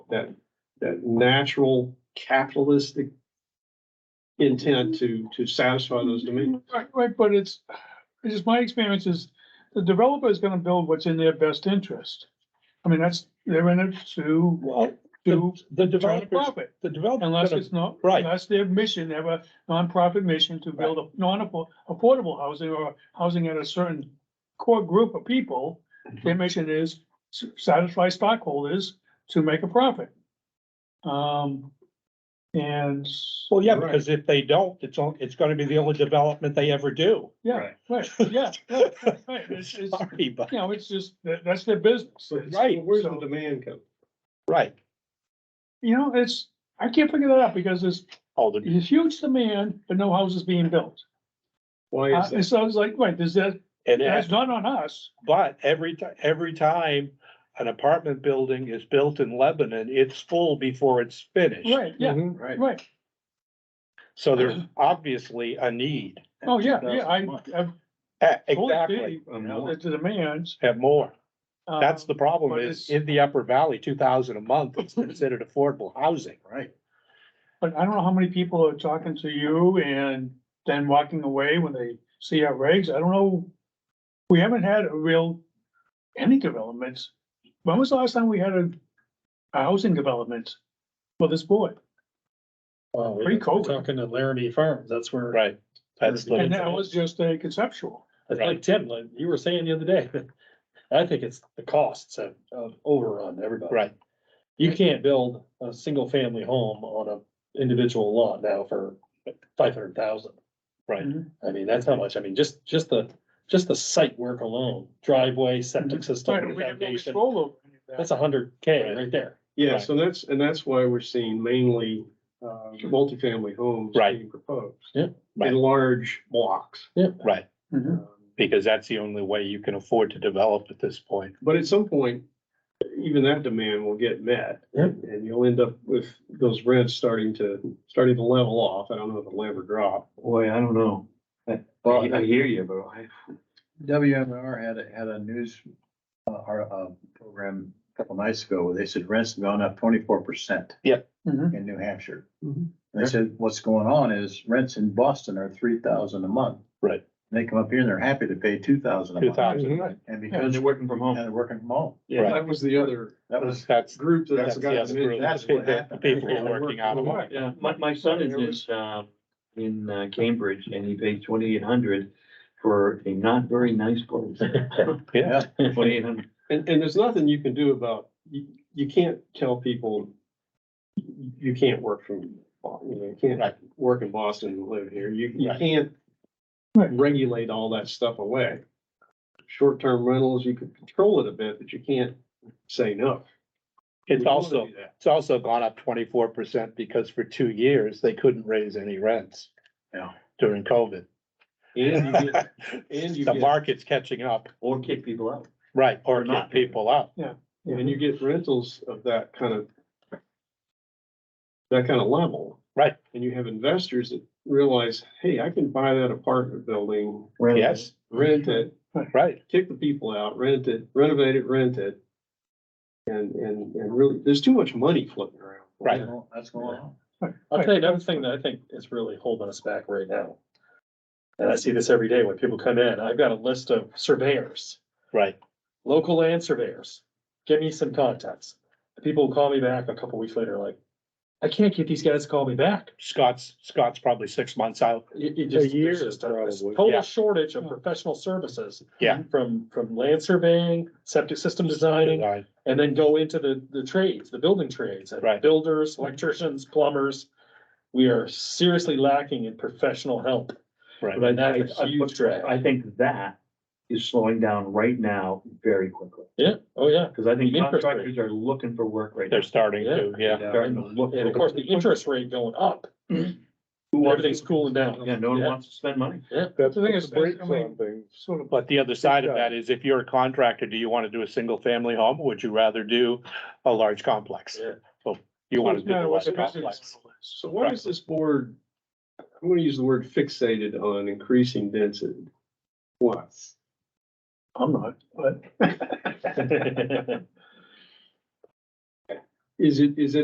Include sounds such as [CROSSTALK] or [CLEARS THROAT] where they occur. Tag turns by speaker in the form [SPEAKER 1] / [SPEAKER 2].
[SPEAKER 1] that, that natural capitalistic intent to, to satisfy those demands.
[SPEAKER 2] Right, right, but it's, it's just my experience is the developer is gonna build what's in their best interest. I mean, that's, they're in it to,
[SPEAKER 3] Well,
[SPEAKER 2] to
[SPEAKER 3] the, the
[SPEAKER 2] try to
[SPEAKER 3] developers,
[SPEAKER 2] profit.
[SPEAKER 3] the developers.
[SPEAKER 2] Unless it's not,
[SPEAKER 3] Right.
[SPEAKER 2] unless their mission, they have a nonprofit mission to build a non-affordable housing or housing at a certain core group of people.
[SPEAKER 3] Mm-hmm.
[SPEAKER 2] Their mission is s- satisfy stockholders to make a profit. Um, and,
[SPEAKER 3] Well, yeah,
[SPEAKER 1] Right.
[SPEAKER 3] because if they don't, it's, on- it's gonna be the only development they ever do.
[SPEAKER 2] yeah,
[SPEAKER 1] Right.
[SPEAKER 2] right, yeah, right, [LAUGHS] it's, it's,
[SPEAKER 3] [LAUGHS] Sorry, but,
[SPEAKER 2] you know, it's just, that, that's their business.
[SPEAKER 1] So it's-
[SPEAKER 3] Right.
[SPEAKER 1] Where's the
[SPEAKER 2] So-
[SPEAKER 1] demand come?
[SPEAKER 3] right.
[SPEAKER 2] You know, it's, I can't figure that out because there's,
[SPEAKER 3] All the,
[SPEAKER 2] there's huge demand, but no houses being built.
[SPEAKER 1] Why
[SPEAKER 2] Uh,
[SPEAKER 1] is
[SPEAKER 2] and
[SPEAKER 1] that?
[SPEAKER 2] so I was like, wait, does that,
[SPEAKER 3] and
[SPEAKER 2] that's
[SPEAKER 3] as,
[SPEAKER 2] not on us.
[SPEAKER 3] but every ti- every time an apartment building is built in Lebanon, it's full before it's finished.
[SPEAKER 2] Right, yeah,
[SPEAKER 1] Mhm, Right.
[SPEAKER 2] right. [CLEARS THROAT]
[SPEAKER 3] So there's obviously a need.
[SPEAKER 2] Oh, yeah, yeah, I, I've
[SPEAKER 3] Eh,
[SPEAKER 2] totally
[SPEAKER 3] Exactly,
[SPEAKER 2] agree, you know, that the demands.
[SPEAKER 3] and more. That's the
[SPEAKER 2] um,
[SPEAKER 3] problem
[SPEAKER 2] but
[SPEAKER 3] is
[SPEAKER 2] it's-
[SPEAKER 3] in the Upper Valley, two thousand a month is considered affordable housing.
[SPEAKER 1] Right.
[SPEAKER 2] But I don't know how many people are talking to you and then walking away when they see our regs. I don't know. We haven't had a real, any developments. When was the last time we had a, a housing development for this board?
[SPEAKER 4] Well,
[SPEAKER 2] Pretty
[SPEAKER 4] we're
[SPEAKER 2] cold.
[SPEAKER 4] talking to Laramie Farms, that's where.
[SPEAKER 3] Right. That's the.
[SPEAKER 2] And that was just a conceptual.
[SPEAKER 4] I think, Tim, like you were saying the other day, I think it's the costs have um, overrun everybody.
[SPEAKER 3] Right.
[SPEAKER 4] You can't build a single family home on a individual lot now for five hundred thousand.
[SPEAKER 3] Right.
[SPEAKER 2] Mhm.
[SPEAKER 4] I mean, that's how much, I mean, just, just the, just the site work alone, driveway, septic
[SPEAKER 2] Right,
[SPEAKER 4] system,
[SPEAKER 2] we have no
[SPEAKER 4] foundation,
[SPEAKER 2] control over any of that.
[SPEAKER 4] that's a hundred K
[SPEAKER 3] Right.
[SPEAKER 4] right there.
[SPEAKER 1] Yeah,
[SPEAKER 3] Right.
[SPEAKER 1] so that's, and that's why we're seeing mainly, uh, multifamily homes
[SPEAKER 3] Right.
[SPEAKER 1] being proposed.
[SPEAKER 4] Yeah.
[SPEAKER 3] Right.
[SPEAKER 1] In large blocks.
[SPEAKER 3] Right,
[SPEAKER 2] Mhm.
[SPEAKER 1] Um,
[SPEAKER 3] because that's the only way you can afford to develop at this point.
[SPEAKER 1] But at some point, even that demand will get met.
[SPEAKER 4] Yeah.
[SPEAKER 1] And you'll end up with those rents starting to, starting to level off. I don't know if it'll ever drop.
[SPEAKER 5] Boy, I don't know. I-
[SPEAKER 1] Well,
[SPEAKER 5] I hear you, but I. WMR had, a- had a news, uh, our, uh, program a couple nights ago where they said rents have gone up twenty-four percent
[SPEAKER 2] Mhm.
[SPEAKER 5] in New Hampshire.
[SPEAKER 1] Mhm.
[SPEAKER 5] And They said, what's going on is rents in Boston are three thousand a month.
[SPEAKER 3] Right.
[SPEAKER 5] And They come up here and they're happy to pay two thousand a
[SPEAKER 3] Two
[SPEAKER 5] month.
[SPEAKER 3] thousand, right?
[SPEAKER 5] And because, and
[SPEAKER 1] working from home.
[SPEAKER 5] they're working from home.
[SPEAKER 1] Yeah, that was the other
[SPEAKER 5] That was,
[SPEAKER 3] That's.
[SPEAKER 1] group that
[SPEAKER 3] That's
[SPEAKER 1] I
[SPEAKER 3] the
[SPEAKER 1] forgot
[SPEAKER 3] other
[SPEAKER 1] to
[SPEAKER 3] group,
[SPEAKER 1] mention.
[SPEAKER 3] the
[SPEAKER 5] That's what
[SPEAKER 3] people- the
[SPEAKER 5] happened.
[SPEAKER 3] people who are
[SPEAKER 5] Yeah,
[SPEAKER 3] working out of work.
[SPEAKER 6] Yeah, my, my son is in, uh, in uh, Cambridge and he pays twenty-eight hundred for a not very nice place.
[SPEAKER 5] [LAUGHS]
[SPEAKER 3] Yeah.
[SPEAKER 6] Twenty-eight hundred.
[SPEAKER 1] And, and there's nothing you can do about, you, you can't tell people you can't work from, Bo- you know, you can't
[SPEAKER 3] Right.
[SPEAKER 1] work in Boston and live here. You, you
[SPEAKER 3] Right.
[SPEAKER 1] can't
[SPEAKER 2] Right.
[SPEAKER 1] regulate all that stuff away. Short-term rentals, you could control it a bit, but you can't say no.
[SPEAKER 3] It's
[SPEAKER 1] We wanna
[SPEAKER 3] also,
[SPEAKER 1] do that.
[SPEAKER 3] it's also gone up twenty-four percent because for two years, they couldn't raise any rents.
[SPEAKER 5] Yeah.
[SPEAKER 3] During COVID.
[SPEAKER 1] And you
[SPEAKER 3] [LAUGHS]
[SPEAKER 1] get- and you
[SPEAKER 3] The
[SPEAKER 1] get-
[SPEAKER 3] market's catching up,
[SPEAKER 6] Or kick people out.
[SPEAKER 3] right, or
[SPEAKER 6] Not-
[SPEAKER 3] not people up,
[SPEAKER 1] and you get rentals of that kind of that kind of level.
[SPEAKER 3] Right.
[SPEAKER 1] And you have investors that realize, hey, I can buy that apartment building,
[SPEAKER 3] yes,
[SPEAKER 1] rent it,
[SPEAKER 3] right,
[SPEAKER 1] kick the people out, rent it, renovate it, rent it. And, and, and really, there's too much money floating around.
[SPEAKER 3] right,
[SPEAKER 5] that's going on.
[SPEAKER 4] I'll tell you another thing that I think is really holding us back right now. And I see this every day when people come in, I've got a list of surveyors.
[SPEAKER 3] right,
[SPEAKER 4] local land surveyors, give me some contacts. People will call me back a couple weeks later, like, I can't get these guys to call me back.
[SPEAKER 3] Scott's, Scott's probably six months out,
[SPEAKER 4] It, it just,
[SPEAKER 3] year,
[SPEAKER 4] there's just a this
[SPEAKER 3] probably, yeah.
[SPEAKER 4] total shortage of professional services.
[SPEAKER 3] Yeah.
[SPEAKER 4] From, from land surveying, septic system designing,
[SPEAKER 3] right,
[SPEAKER 4] and then go into the, the trades, the building trades. and
[SPEAKER 3] Right.
[SPEAKER 4] Builders, electricians, plumbers. We are seriously lacking in professional help.
[SPEAKER 3] right,
[SPEAKER 4] But that's
[SPEAKER 6] I-
[SPEAKER 4] a huge drag.
[SPEAKER 6] I think that is slowing down right now very quickly,
[SPEAKER 4] Yeah, oh, yeah.
[SPEAKER 6] because I think
[SPEAKER 4] The interest rate.
[SPEAKER 6] contractors are looking for work right now.
[SPEAKER 3] they're starting to, yeah.
[SPEAKER 6] Starting to look.
[SPEAKER 4] And of course, the interest rate going up,
[SPEAKER 6] Who wants-
[SPEAKER 4] everything's cooling down.
[SPEAKER 6] Yeah, no one
[SPEAKER 4] Yeah.
[SPEAKER 6] wants to spend money.
[SPEAKER 2] The thing is, I mean, sort of.
[SPEAKER 3] But the other side of that is if you're a contractor, do you want to do a single family home? or Would you rather do a large complex?
[SPEAKER 4] Yeah.
[SPEAKER 3] Well, you want to do
[SPEAKER 2] Yeah,
[SPEAKER 3] the
[SPEAKER 2] what's
[SPEAKER 3] large
[SPEAKER 2] the business
[SPEAKER 3] complex.
[SPEAKER 2] model is.
[SPEAKER 1] So why is this board, I'm gonna use the word fixated on increasing density? Why?
[SPEAKER 2] I'm not, but.
[SPEAKER 1] [LAUGHS] Is it, is it